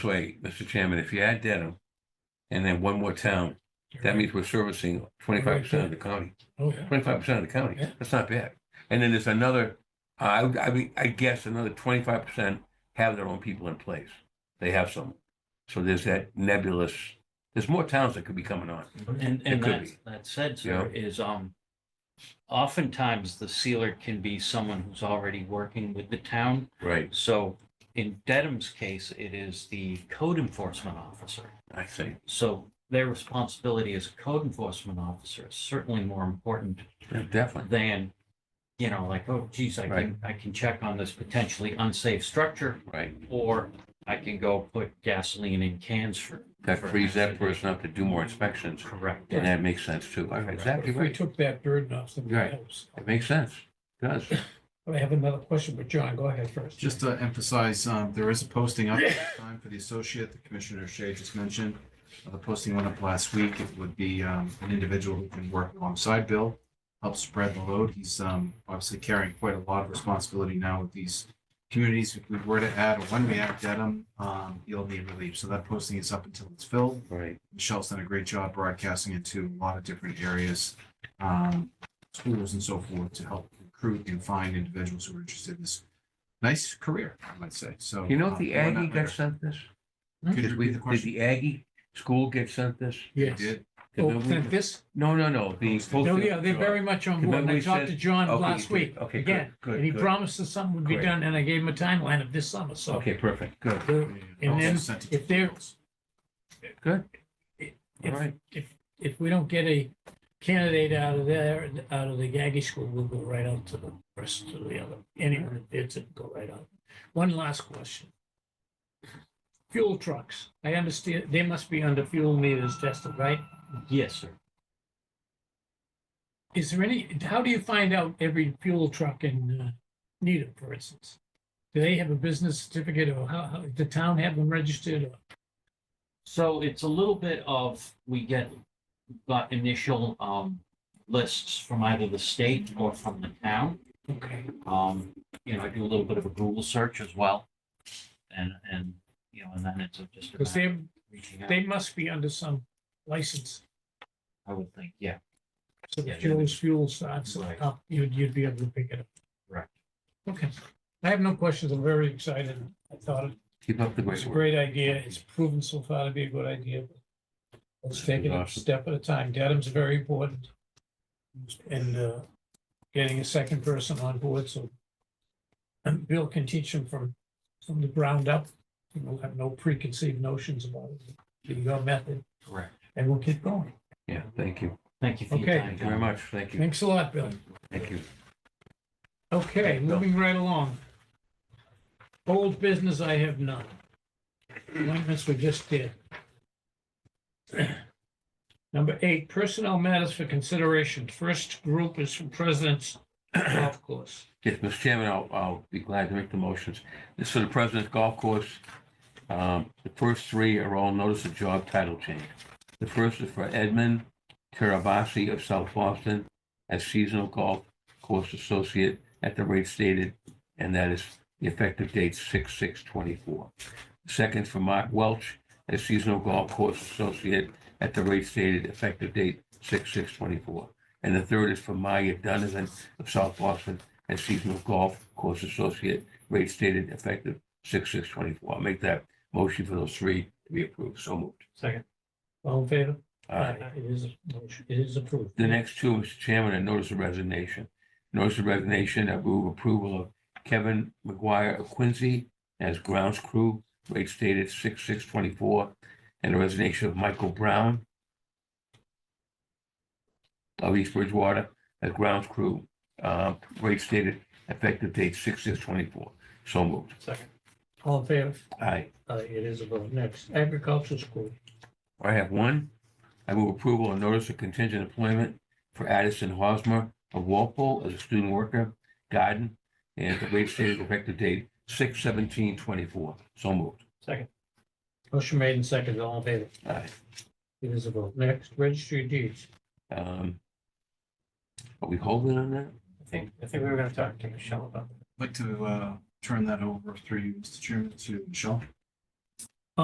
way, Mr. Chairman, if you add Dedham and then one more town, that means we're servicing twenty-five percent of the county, Oh, yeah. twenty-five percent of the county. Yeah. That's not bad. And then there's another, I, would- I mean, I guess another twenty-five percent have their own people in place. They have some. So there's that nebulous, there's more towns that could be coming on. And, It and could that, be. that said, sir, is, um, oftentimes the sealer can be someone who's already working with the town. Right. So in Dedham's case, it is the code enforcement officer. I see. So their responsibility as a code enforcement officer is certainly more important Yeah, Definitely. than, you know, like, oh geez, I can, I can check on this potentially unsafe structure, Right. or I can go put gasoline in cans for. That for frees that accident. person up to do more inspections. Correct. And that makes sense too. Exactly If we right. took that burden off somebody Right. else. It makes sense. It Does. I have another question, but John, go ahead first. Just to emphasize, um, there is a posting up at this time for the associate, that Commissioner Shea just mentioned. Uh, The posting went up last week. It would be, um, an individual who can work alongside Bill, help spread the load. He's, um, obviously carrying quite a lot of responsibility now with these communities. If we were to add, or when we add Dedham, um, he'll need relief. So that posting is up until it's filled. Right. Michelle's done a great job broadcasting it to a lot of different areas, um, schools and so forth to help recruit and find individuals who are interested in this nice career, I might say. So. You know uh, if the we're not Aggie got there. sent this? Hmm? Could you Did we, repeat the did question? the Aggie school get sent this? You Yes. did. Did Oh, we- then this, No, no, no, the. no, postal- yeah, they're very much on board. And I Remember we talked to said- John Okay, last good. week, Okay, again, good, good. and he good. promised that something would be Great. done, and I gave him a timeline of this summer, so. Okay, perfect, good, the- And Also then sent it to if they're, schools. good. All if, right, if, if we don't get a candidate out of there, out of the Aggie school, we'll go right out to the rest of the other, anyone that bids it, go right out. One last question. Fuel trucks, I understand, they must be under fuel meters tested, right? Yes, sir. Is there any, how do you find out every fuel truck in uh, Needham, for instance? Do they have a business certificate or how, how, the town have them registered? or- So it's a little bit of, we get, got initial, um, lists from either the state or from the town. Okay, Um, you know, I do a little bit of a Google search as well. And, and, you know, and then it's just. a because matter they're, of reaching out, they must be under some license. I would think, yeah. So the Yeah, fuel's fuel starts Right. up, you'd, you'd be able to pick it up. Right. Okay. I have no questions. I'm very excited. I thought it keep up the was great a work. great idea. It's proven so far to be a good idea. Let's take it a Awesome. step at a time. Dedham's very important. And, uh, getting a second person on board, so and Bill can teach him from, from the ground up. He will have no preconceived notions about it, your method, Correct. and we'll keep going. Yeah, thank you, Thank you for your Okay. time. thank you very much, thank you, Thanks a lot, Bill. thank you. Okay, Thanks, Bill. moving right along. Old business, I have none. Appointments we just did. Number eight, personnel matters for consideration. First group is from President's Golf Course. Yes, Mr. Chairman, I'll, I'll be glad to make the motions. This is for the President's Golf Course. Um, the first three are all notice of job title change. The first is for Edmund Terabasi of South Boston as seasonal golf course associate at the rate stated, and that is the effective date six, six, twenty-four. Second is for Mark Welch as seasonal golf course associate at the rate stated, effective date six, six, twenty-four. And the third is for Maya Donovan of South Boston and seasonal golf course associate, rate stated effective six, six, twenty-four. I'll make that motion for those three to be approved. So moved. Second. All in favor? Uh, It is, a motion. it is approved. the next two, Mr. Chairman, are notice of resignation. Notice of resignation, I move approval of Kevin McGuire of Quincy as grounds crew, rate stated six, six, twenty-four, and the resignation of Michael Brown of East Bridgewater as grounds crew, uh, rate stated effective date six, six, twenty-four. So moved. Second. All in favor? Aye. Uh, it is a vote. Next, agricultural school. I have one. I move approval of notice of contingent employment for Addison Hosmer of Walpole as a student worker, garden, and the rate stated effective date six seventeen twenty-four. So moved. Second. Motion made and seconded. All in favor? Aye. It is a vote. Next, registry of deeds. Um, Are we holding on that? I think, I think we were gonna talk to Michelle about I'd Like to, uh, turn that over through you, Mr. Chairman, to Michelle.